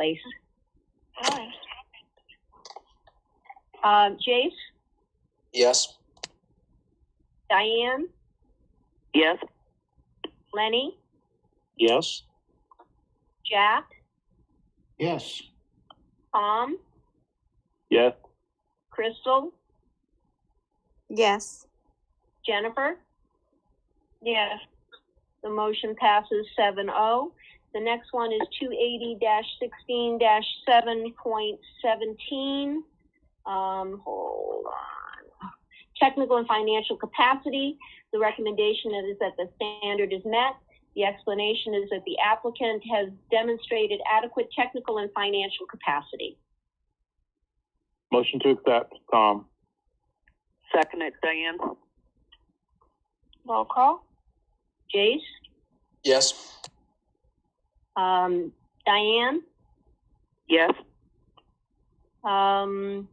place. Hi. Um, Jace, Yes. Diane, Yes. Lenny, Yes. Jack, Yes. Tom, Yes. Crystal, Yes. Jennifer. Yes. The motion passes 7-0. The next one is two eighty sixteen seven point seventeen. Um, hold on. Technical and financial capacity. The recommendation is that the standard is met. The explanation is that the applicant has demonstrated adequate technical and financial capacity. Motion to accept, Tom. Second it, Diane. Roll call. Jace, Yes. um, Diane, Yes. um,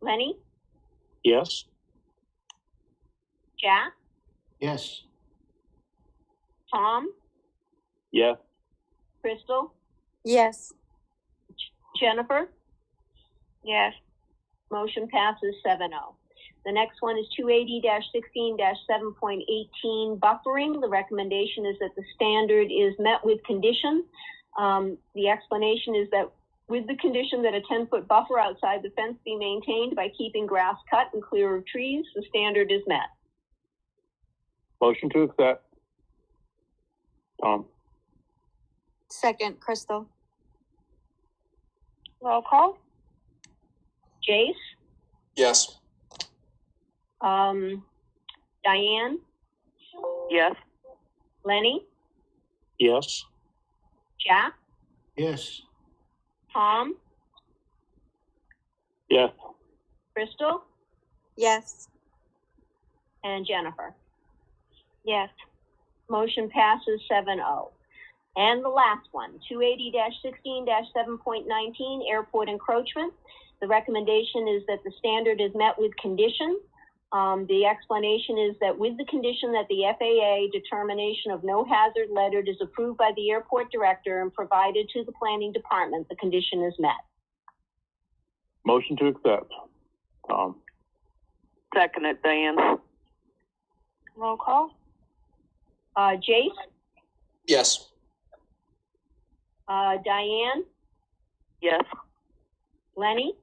Lenny, Yes. Jack, Yes. Tom, Yes. Crystal, Yes. Jennifer, Yes. motion passes 7-0. The next one is two eighty sixteen seven point eighteen buffering. The recommendation is that the standard is met with condition. Um, the explanation is that with the condition that a ten-foot buffer outside the fence be maintained by keeping grass cut and clear of trees, the standard is met. Motion to accept. Tom. Second, Crystal. Roll call. Jace, Yes. um, Diane, Yes. Lenny, Yes. Jack, Yes. Tom, Yes. Crystal, Yes. and Jennifer. Yes. Motion passes 7-0. And the last one, two eighty sixteen seven point nineteen, airport encroachment. The recommendation is that the standard is met with condition. Um, the explanation is that with the condition that the FAA determination of no hazard lettered is approved by the airport director and provided to the planning department, the condition is met. Motion to accept, Tom. Second it, Diane. Roll call. Uh, Jace, Yes. uh, Diane, Yes. Lenny,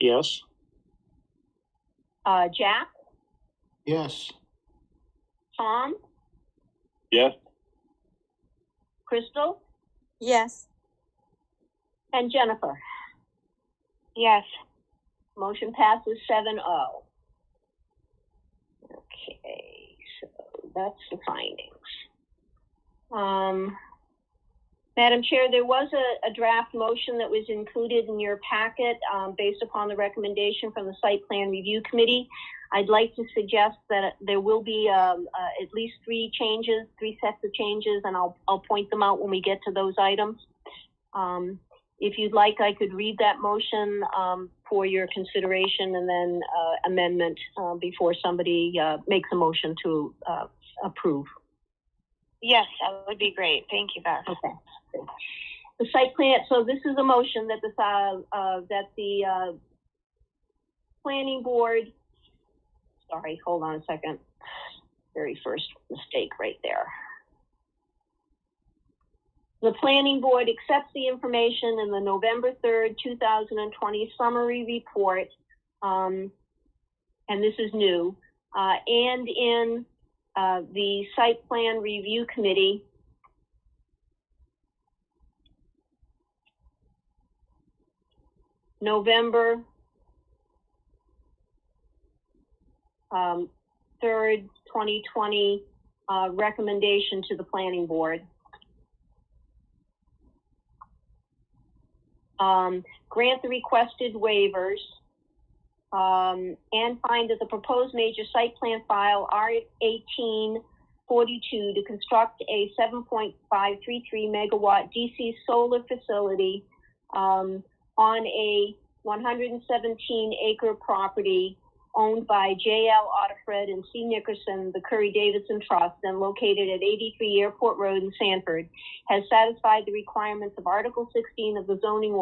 Yes. uh, Jack, Yes. Tom, Yes. Crystal, Yes. And Jennifer? Yes. Motion passes seven oh. Okay, so that's the findings. Um, Madam Chair, there was a, a draft motion that was included in your packet, um, based upon the recommendation from the Site Plan Review Committee. I'd like to suggest that there will be, um, uh, at least three changes, three sets of changes, and I'll, I'll point them out when we get to those items. Um, if you'd like, I could read that motion um, for your consideration and then uh, amendment uh, before somebody uh, makes a motion to uh, approve. Yes, that would be great. Thank you, Beth. Okay. The site plan, so this is a motion that the, uh, uh, that the, uh, planning board, sorry, hold on a second. Very first mistake right there. The planning board accepts the information in the November third, two thousand and twenty summary report. Um, and this is new, uh, and in, uh, the site plan review committee, November um, third, twenty twenty, uh, recommendation to the planning board. Um, grant the requested waivers. Um, and find that the proposed major site plan file R eighteen forty-two to construct a seven point five three three megawatt DC solar facility, um, on a 117 acre property owned by J.L. Otterfred and C. Nickerson, the Curry Davidson Trust, and located at 83 Airport Road in Sanford, has satisfied the requirements of Article 16 of the zoning